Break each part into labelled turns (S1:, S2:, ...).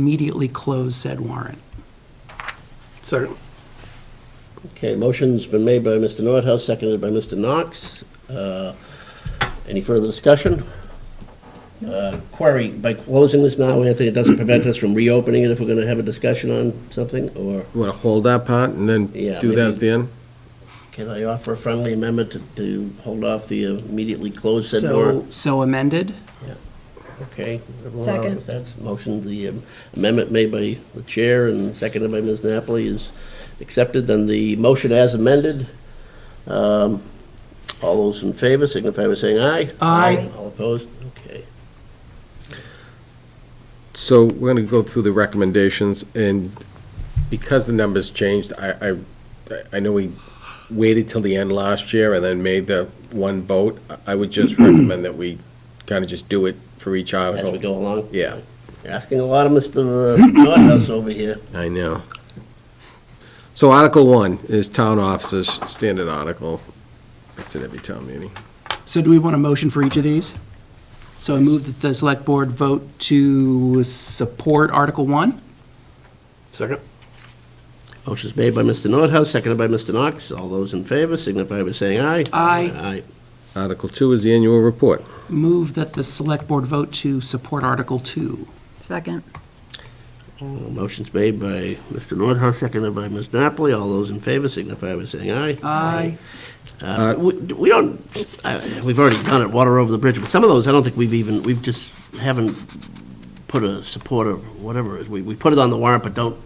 S1: immediately close said warrant.
S2: Second.
S3: Okay, motion's been made by Mr. Nordhaus, seconded by Mr. Knox. Uh, Any further discussion? Uh, Query, by closing this now, Anthony, it doesn't prevent us from reopening it if we're going to have a discussion on something, or
S4: You want to hold that part and then
S3: Yeah,
S4: do that at the end?
S3: can I offer a friendly amendment to- to hold off the immediately closed said
S1: So,
S3: warrant?
S1: so amended?
S3: Okay. everyone all right
S5: Second.
S3: with That's motion, the um, amendment made by the chair and seconded by Ms. Napoli is accepted, then the motion as amended. Um, All those in favor signify by saying aye.
S1: Aye.
S3: All opposed? Okay.
S4: So we're going to go through the recommendations, and because the numbers changed, I, I, I know we waited till the end last year and then made the one vote. I- I would just recommend that we kind of just do it for each
S3: As
S4: article.
S3: we go along.
S4: Yeah,
S3: You're Asking a lot of Mr. Nordhaus over here.
S4: I know. So Article One is Town Officers, standard article. That's at every town meeting.
S1: So do we want a motion for each of these? So I move that the select board vote to support Article 1?
S2: Second.
S3: Motion's made by Mr. Nordhaus, seconded by Mr. Knox. All those in favor signify by saying aye.
S1: Aye.
S3: Aye.
S4: Article Two is the annual report.
S1: Move that the select board vote to support Article 2.
S5: Second.
S3: Motion's made by Mr. Nordhaus, seconded by Ms. Napoli. All those in favor signify by saying aye.
S1: Aye.
S3: Uh, We we don't, uh, we've already done it, water over the bridge, but some of those, I don't think we've even, we've just, haven't put a support or whatever. it is. We we put it on the warrant, but don't.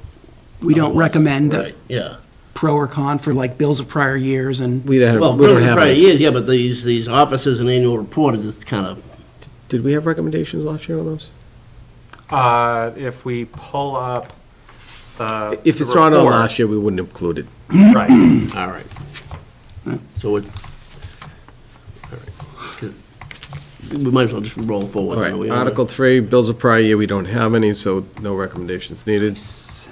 S1: We don't recommend a
S3: Right, Yeah.
S1: pro or con for like bills of prior years and,
S4: We don't
S3: Well,
S4: have, we don't
S3: really,
S4: have,
S3: prior
S4: a-
S3: years, yeah, but these, these officers and annual report, it's kind of,
S4: did we have recommendations last year on those?
S6: Uh, If we pull up the.
S4: If it's
S6: the
S4: not on
S6: report-
S4: last year, we wouldn't have included.
S6: Right.
S3: all right. So it, all right. We might as well just roll forward.
S4: All right,
S3: you know, we-
S4: Article three, bills of prior year, we don't have any, so no recommendations needed.
S1: S-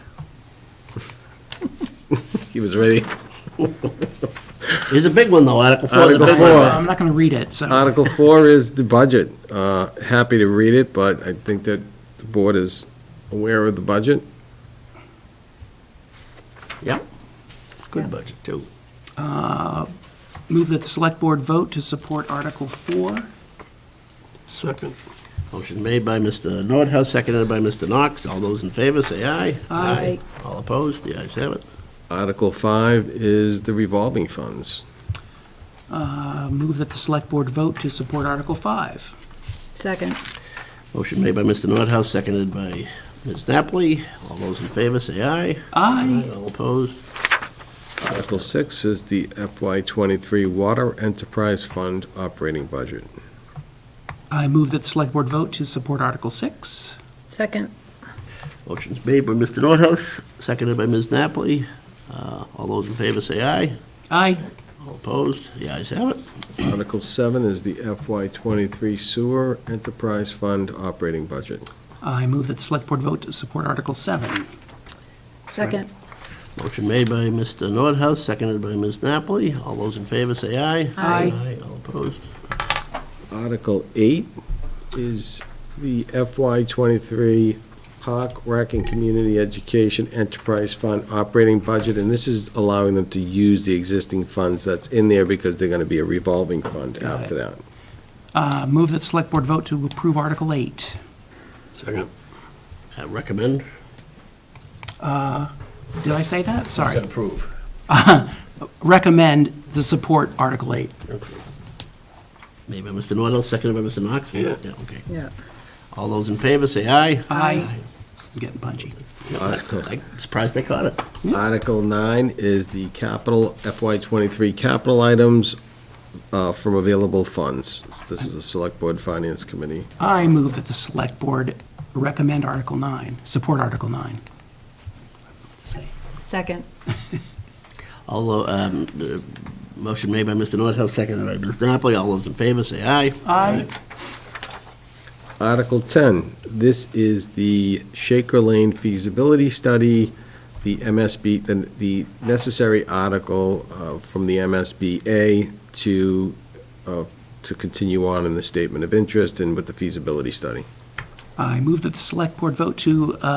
S4: He was ready.
S3: It's a big one, though, Article 4.
S4: Article
S3: Big
S4: four.
S3: one.
S1: I'm not going to read it, so.
S4: Article four is the budget. Uh, happy to read it, but I think that the board is aware of the budget.
S3: Yep. Good budget, too.
S1: Move that the select board vote to support Article 4.
S2: Second.
S3: Motion made by Mr. Nordhaus, seconded by Mr. Knox. All those in favor, say aye.
S1: Aye.
S3: All opposed, the ayes have it.
S4: Article five is the revolving funds.
S1: Uh, Move that the select board vote to support Article 5.
S5: Second.
S3: Motion made by Mr. Nordhaus, seconded by Ms. Napoli. All those in favor, say aye.
S1: Aye.
S3: All opposed,
S4: Article six is the FY twenty-three Water Enterprise Fund operating budget.
S1: I move that the select board vote to support Article 6.
S5: Second.
S3: Motion's made by Mr. Nordhaus, seconded by Ms. Napoli. Uh, All those in favor say aye.
S1: Aye.
S3: All opposed, the ayes have it.
S4: Article seven is the FY twenty-three Sewer Enterprise Fund operating budget.
S1: I move that the select board vote to support Article 7.
S5: Second.
S3: Motion made by Mr. Nordhaus, seconded by Ms. Napoli. All those in favor say aye.
S1: Aye.
S3: All opposed.
S4: Article eight is the FY twenty-three Park Rec and Community Education Enterprise Fund operating budget, and this is allowing them to use the existing funds that's in there because they're gonna be a revolving fund
S1: Got it.
S4: after that.
S1: Uh, Move that the select board vote to approve Article 8.
S3: Second. I recommend.
S1: Did I say that? Sorry.
S3: Said Approve.
S1: Recommend to support Article 8.
S3: Made by Mr. Nordhaus, seconded by Mr. Knox.
S2: Yeah.
S3: okay.
S5: Yeah.
S3: All those in favor say aye.
S1: Aye. I'm getting punchy.
S3: I'm surprised I caught it.
S4: Article nine is the capital FY twenty-three capital items, uh, from available funds. This is a select board finance committee.
S1: I move that the select board recommend Article 9, support Article 9. Say.
S5: Second.
S3: Although, um, the motion made by Mr. Nordhaus, seconded by Ms. Napoli. All those in favor say aye.
S1: Aye.
S4: Article 10, this is the Shaker Lane feasibility study, the MSB, the- the necessary article uh, from the MSBA to, uh, to continue on in the statement of interest and with the feasibility study.
S1: I move that the select board vote to uh,